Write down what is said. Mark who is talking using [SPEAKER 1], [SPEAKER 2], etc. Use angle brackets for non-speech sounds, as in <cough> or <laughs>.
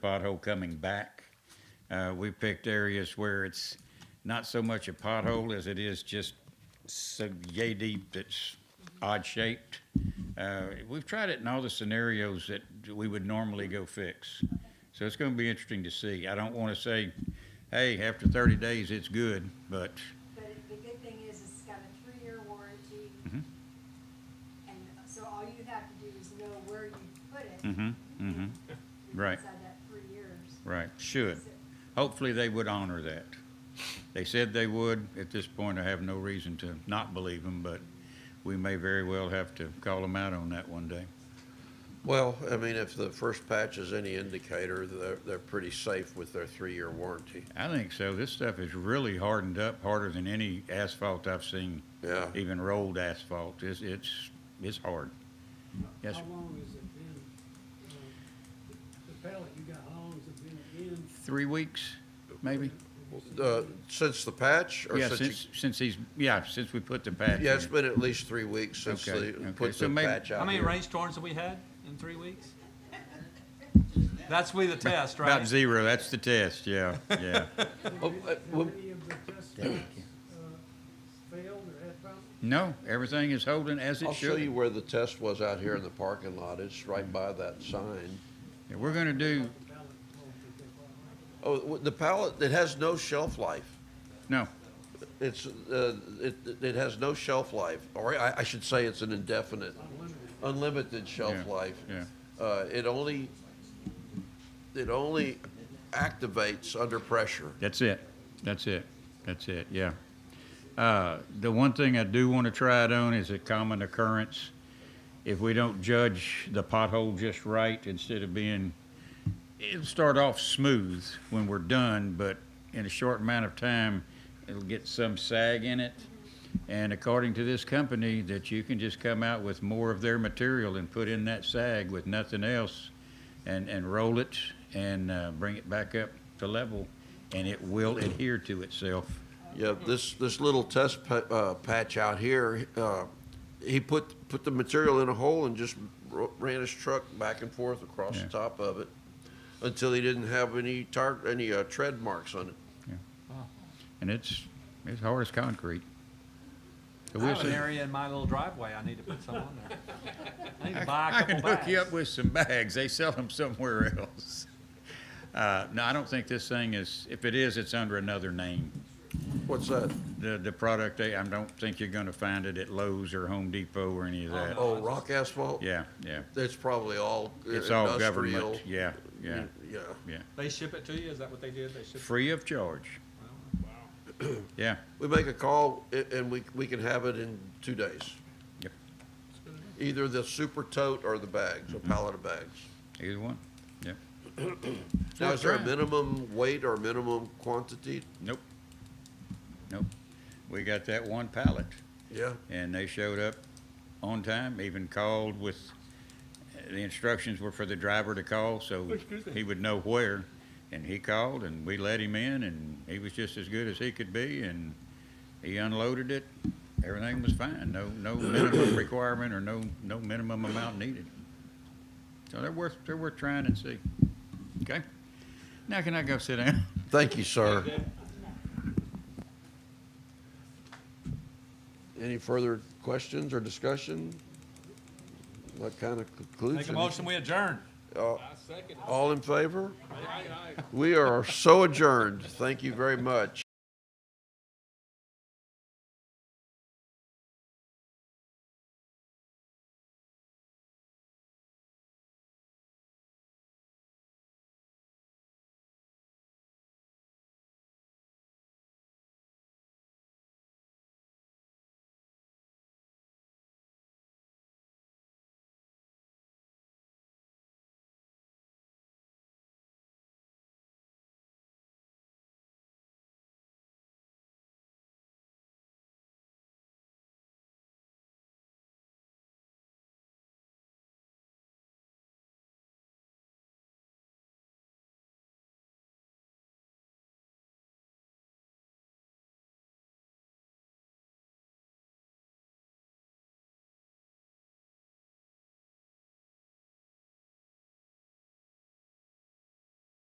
[SPEAKER 1] pothole coming back. Uh, we picked areas where it's not so much a pothole as it is just so yay deep that's odd shaped. Uh, we've tried it in all the scenarios that we would normally go fix. So it's going to be interesting to see. I don't want to say, hey, after 30 days, it's good, but
[SPEAKER 2] But it- the good thing is, it's got a three-year warranty. And so all you have to do is know where you put it.
[SPEAKER 1] Mhm, mhm. Right.
[SPEAKER 2] Inside that three years.
[SPEAKER 1] Right, should.
[SPEAKER 2] So-
[SPEAKER 1] Hopefully, they would honor that. They said they would. At this point, I have no reason to not believe them, but we may very well have to call them out on that one day.
[SPEAKER 3] Well, I mean, if the first patch is any indicator, they're, they're pretty safe with their three-year warranty.
[SPEAKER 1] I think so. This stuff is really hardened up, harder than any asphalt I've seen.
[SPEAKER 3] Yeah.
[SPEAKER 1] Even rolled asphalt. It's, it's, it's hard. Yes,
[SPEAKER 4] How
[SPEAKER 1] sir.
[SPEAKER 4] long has it been, uh, the pallet you got, how long has it been in?
[SPEAKER 1] Three weeks, maybe?
[SPEAKER 3] Uh, since the patch or
[SPEAKER 1] Yeah,
[SPEAKER 3] since? you-
[SPEAKER 1] since, since he's, yeah, since we put the patch in.
[SPEAKER 3] Yeah, it's been at least three weeks since
[SPEAKER 1] Okay,
[SPEAKER 3] they
[SPEAKER 1] okay.
[SPEAKER 3] put
[SPEAKER 1] So
[SPEAKER 3] the
[SPEAKER 1] maybe-
[SPEAKER 3] patch out
[SPEAKER 5] How many
[SPEAKER 3] here.
[SPEAKER 5] rainstorms have we had in three weeks? That's we the test,
[SPEAKER 1] About
[SPEAKER 5] right?
[SPEAKER 1] zero. That's the test, yeah, yeah. <laughs>
[SPEAKER 3] Oh, uh,
[SPEAKER 4] How
[SPEAKER 3] well-
[SPEAKER 4] many of the test pits, uh, failed or had problems?
[SPEAKER 1] No, everything is holding as
[SPEAKER 3] I'll
[SPEAKER 1] it
[SPEAKER 3] show
[SPEAKER 1] should.
[SPEAKER 3] you where the test was out here in the parking lot. It's right by that sign.
[SPEAKER 1] Yeah, We're gonna do,
[SPEAKER 4] The pallet, oh, did they fall out?
[SPEAKER 3] Oh, w- the pallet, it has no shelf life.
[SPEAKER 1] no,
[SPEAKER 3] It's, uh, it, it has no shelf life, or I, I should say it's an indefinite, unlimited shelf
[SPEAKER 1] Yeah,
[SPEAKER 3] life.
[SPEAKER 1] yeah.
[SPEAKER 3] Uh, it only, it only activates under pressure.
[SPEAKER 1] that's it. That's it. That's it, yeah. Uh, the one thing I do wanna try it on is a common occurrence. If we don't judge the pothole just right, instead of being, it'll start off smooth when we're done, but in a short amount of time, it'll get some sag in it. And according to this company, that you can just come out with more of their material and put in that sag with nothing else and, and roll it and uh, bring it back up to level and it will adhere to itself.
[SPEAKER 3] Yeah, this, this little test pa- uh, patch out here, uh, he put, put the material in a hole and just ro- ran his truck back and forth across
[SPEAKER 1] Yeah.
[SPEAKER 3] the top of it until he didn't have any tar, any uh, tread marks on it.
[SPEAKER 1] And it's, it's hard as concrete. So
[SPEAKER 5] I
[SPEAKER 1] we'll
[SPEAKER 5] have an
[SPEAKER 1] see.
[SPEAKER 5] area in my little driveway I need to put some on there. I need to buy a
[SPEAKER 1] I
[SPEAKER 5] couple
[SPEAKER 1] can
[SPEAKER 5] bags.
[SPEAKER 1] hook you up with some bags. They sell them somewhere else. <laughs> Uh, no, I don't think this thing is, if it is, it's under another name.
[SPEAKER 3] What's that?
[SPEAKER 1] The, the product, they- I don't think you're gonna find it at Lowe's or Home Depot or any of that.
[SPEAKER 5] Uh-huh.
[SPEAKER 3] Oh, rock asphalt?
[SPEAKER 1] Yeah, yeah.
[SPEAKER 3] That's probably all uh,
[SPEAKER 1] It's all
[SPEAKER 3] industrial.
[SPEAKER 1] government. Yeah, yeah,
[SPEAKER 3] Yeah.
[SPEAKER 1] yeah.
[SPEAKER 5] They ship it to you, is that what they did? They ship?
[SPEAKER 1] Free of charge. <clears throat> Yeah,
[SPEAKER 3] We make a call a- and we, we can have it in two days.
[SPEAKER 1] Yep.
[SPEAKER 3] Either the super tote or the bags, a pallet of bags.
[SPEAKER 1] either one. Yeah.
[SPEAKER 3] Now, is there a
[SPEAKER 1] Right.
[SPEAKER 3] minimum weight or minimum quantity?
[SPEAKER 1] Nope. Nope. We got that one pallet
[SPEAKER 3] Yeah.
[SPEAKER 1] and they showed up on time, even called with, the instructions were for the driver to call so he would know where. And he called and we let him in and he was just as good as he could be and he unloaded it. Everything was fine. No, no minimum requirement or no, no minimum amount needed. So they're worth, they're worth trying and see. Okay? Now can I go sit down?
[SPEAKER 3] Thank you, sir. Any further questions or discussion? That kind of concludes.
[SPEAKER 5] Make a
[SPEAKER 3] it. Uh,
[SPEAKER 5] motion, we adjourn.
[SPEAKER 3] All in favor? We are so adjourned. Thank you very much.